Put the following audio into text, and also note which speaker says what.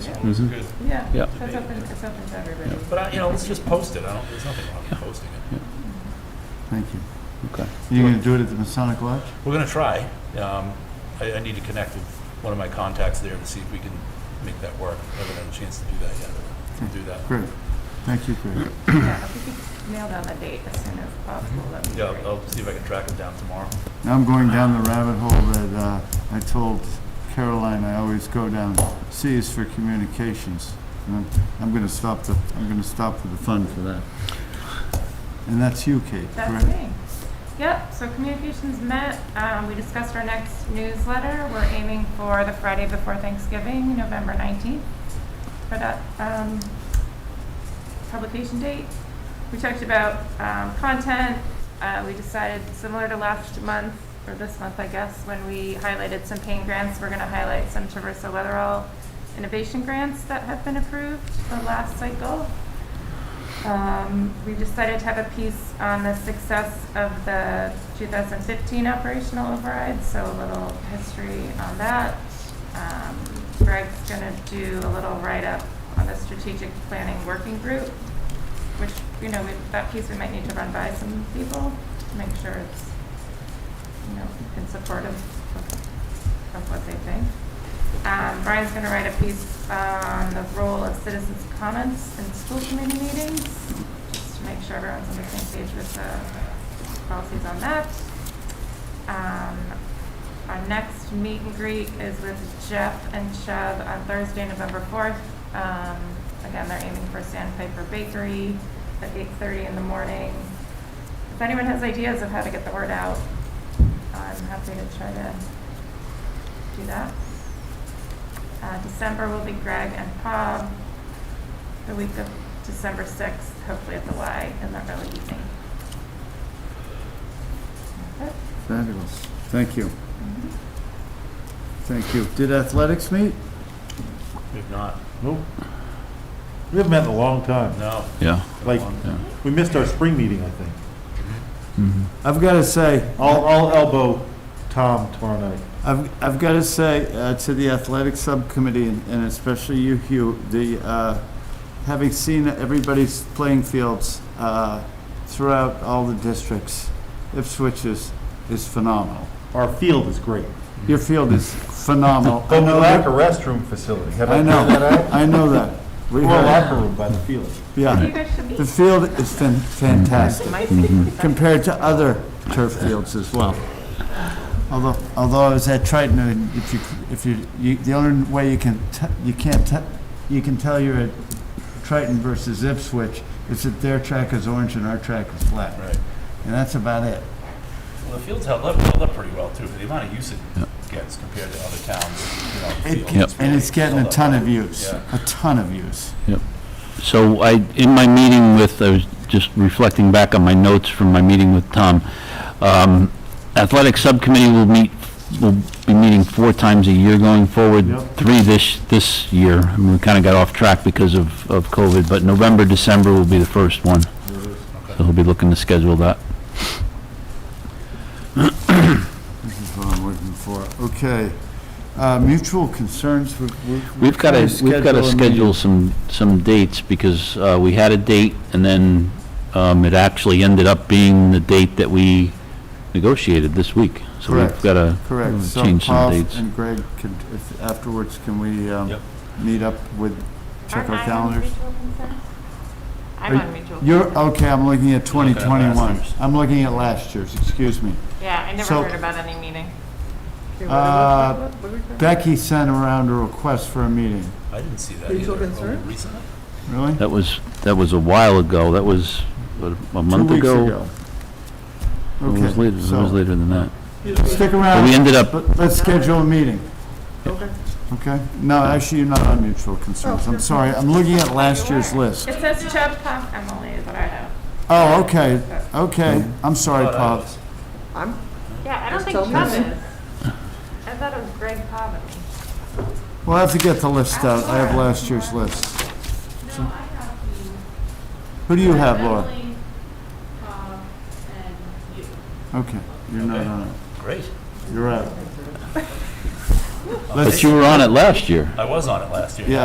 Speaker 1: Mm-hmm.
Speaker 2: Mhm.
Speaker 3: good.
Speaker 4: Yeah,
Speaker 2: Yeah.
Speaker 4: it's open, it's open to everybody.
Speaker 3: But, I- you know, let's just post it, I don't, there's nothing wrong with posting it.
Speaker 1: Thank you.
Speaker 2: Okay.
Speaker 1: You're going to do it at the Masonic Lodge?
Speaker 3: We're gonna try. Um, I, I need to connect with one of my contacts there to see if we can make that work. I haven't had a chance to do that yet, but we'll do that.
Speaker 1: Great. Thank you, Greg.
Speaker 4: Yeah, if we could nail down the date as soon as possible, that'd be
Speaker 3: Yeah,
Speaker 4: great.
Speaker 3: I'll- I'll see if I can track him down tomorrow.
Speaker 1: Now I'm going down the rabbit hole that uh, I told Caroline I always go down. C is for communications. And I'm- I'm going to stop the, I'm going to stop for the fun for that. And that's you, Kate,
Speaker 4: That's
Speaker 1: correct?
Speaker 4: me. Yep, so communications met, um, we discussed our next newsletter, we're aiming for the Friday before Thanksgiving, November nineteenth, for that, um, publication date. We talked about, um, content, uh, we decided, similar to last month, or this month, I guess, when we highlighted some pain grants, we're gonna highlight some Traverso Weatherall innovation grants that have been approved the last cycle. Um, we decided to have a piece on the success of the 2015 operational override, so a little history on that. Um, Greg's going to do a little write-up on the strategic planning working group, which, you know, we- that piece we might need to run by some people to make sure it's, you know, in support of, of what they think. Um, Brian's gonna write a piece on the role of citizens' comments in school committee meetings, just to make sure everyone's on the same page with the policies on that. Um, our next meet and greet is with Jeff and Chubb on Thursday, November fourth. Um, again, they're aiming for Sandpiper Bakery at eight-thirty in the morning. If anyone has ideas of how to get the word out, I'm happy to try to do that. Uh, December will be Greg and Bob. The week of December 6th, hopefully at the Y in the early evening. That's it.
Speaker 1: Fabulous. Thank you.
Speaker 4: Mm-hmm.
Speaker 1: Thank you. Did athletics meet?
Speaker 3: If not,
Speaker 5: Nope. We haven't met in a long time.
Speaker 3: no.
Speaker 2: Yeah.
Speaker 5: Like,
Speaker 2: Yeah.
Speaker 5: we missed our spring meeting, I think.
Speaker 1: I've got to say,
Speaker 5: I'll, I'll elbow Tom tomorrow night.
Speaker 1: I've, I've got to say uh, to the athletic subcommittee, and and especially you, Hugh, the, uh, having seen everybody's playing fields uh, throughout all the districts, Ipswich is, is phenomenal.
Speaker 5: Our field is great.
Speaker 1: Your field is phenomenal. I
Speaker 5: But we
Speaker 1: know
Speaker 5: lack a
Speaker 1: that-
Speaker 5: restroom facility. Have
Speaker 1: I
Speaker 5: I figured that
Speaker 1: know,
Speaker 5: out?
Speaker 1: I know that. We
Speaker 5: Or a
Speaker 1: have-
Speaker 5: locker room by the field.
Speaker 4: You
Speaker 1: Yeah,
Speaker 4: guys should
Speaker 1: the
Speaker 4: meet.
Speaker 1: field is fan- fantastic,
Speaker 4: Might be.
Speaker 1: compared to other turf fields as well. Although, although I was at Triton, and if you, if you, you, the only way you can, te- you can't, te- you can tell you're at Triton versus Ipswich is that their track is orange and our track is black.
Speaker 3: Right.
Speaker 1: And that's about it.
Speaker 3: Well, the field's held up, held up pretty well too, for the amount of use it gets compared to other towns, you know.
Speaker 1: It-
Speaker 3: the field is
Speaker 1: And it's
Speaker 3: really
Speaker 1: getting a
Speaker 3: held up
Speaker 1: ton
Speaker 3: well.
Speaker 1: of use,
Speaker 3: Yeah.
Speaker 1: a ton of use.
Speaker 2: So I, in my meeting with, I was just reflecting back on my notes from my meeting with Tom. Um, Athletic Subcommittee will meet, will be meeting four times a year going forward,
Speaker 5: Yep.
Speaker 2: three this, this year. I mean, we kind of got off track because of, of COVID, but November, December will be the first one. So we'll be looking to schedule that.
Speaker 1: This is what I'm looking for. Okay. Uh, mutual concerns, we- we-
Speaker 2: We've got to,
Speaker 1: we're
Speaker 2: we've got to
Speaker 1: trying
Speaker 2: schedule some, some dates, because uh, we had a date, and then um, it actually ended up being the date that we negotiated this week. So
Speaker 1: Correct.
Speaker 2: we've got to
Speaker 1: Correct, so
Speaker 2: change some
Speaker 1: Paul
Speaker 2: Hmm, dates.
Speaker 1: and Greg, could, if afterwards, can we, um,
Speaker 3: Yep.
Speaker 1: meet up with, check our calendars?
Speaker 4: I'm
Speaker 1: Are
Speaker 4: on mutual.
Speaker 1: You're, okay, I'm looking at
Speaker 3: looking at last
Speaker 1: 2021.
Speaker 3: year's.
Speaker 1: I'm looking at last year's, excuse me.
Speaker 4: Yeah, I
Speaker 1: so-
Speaker 4: never heard about any meeting.
Speaker 1: Uh, Becky sent around a request for a meeting,
Speaker 3: I didn't see that
Speaker 6: Are you
Speaker 3: either.
Speaker 6: so
Speaker 3: Oh,
Speaker 6: concerned?
Speaker 3: Recently?
Speaker 1: really?
Speaker 2: That was, that was a while ago, that was what, a
Speaker 1: Two
Speaker 2: month
Speaker 1: weeks
Speaker 2: ago? It was
Speaker 1: Okay,
Speaker 2: later, it was
Speaker 1: so,
Speaker 2: later than that.
Speaker 1: stick
Speaker 2: But we
Speaker 1: around,
Speaker 2: ended up,
Speaker 1: but let's schedule a meeting,
Speaker 6: Okay.
Speaker 1: okay? No, actually, you're not on mutual concerns, I'm sorry, I'm looking at last year's list.
Speaker 4: It says Chubb, Pop, Emily is what I have.
Speaker 1: Oh, okay, okay, I'm sorry,
Speaker 3: Oh, that
Speaker 1: Bob.
Speaker 3: was-
Speaker 6: I'm,
Speaker 4: Yeah, I don't
Speaker 6: Just
Speaker 4: think
Speaker 6: tell me.
Speaker 4: Chubb is. I thought it was Greg Pop. No,
Speaker 1: We'll have to get the list out, I have last year's list.
Speaker 4: I have you.
Speaker 1: Who do you have, Laura?
Speaker 4: Pop, and you.
Speaker 1: Okay, you're not on it.
Speaker 3: Great.
Speaker 1: You're out.
Speaker 2: But
Speaker 1: Let's,
Speaker 2: you were on it last year.
Speaker 3: I was on it last year.
Speaker 1: yeah,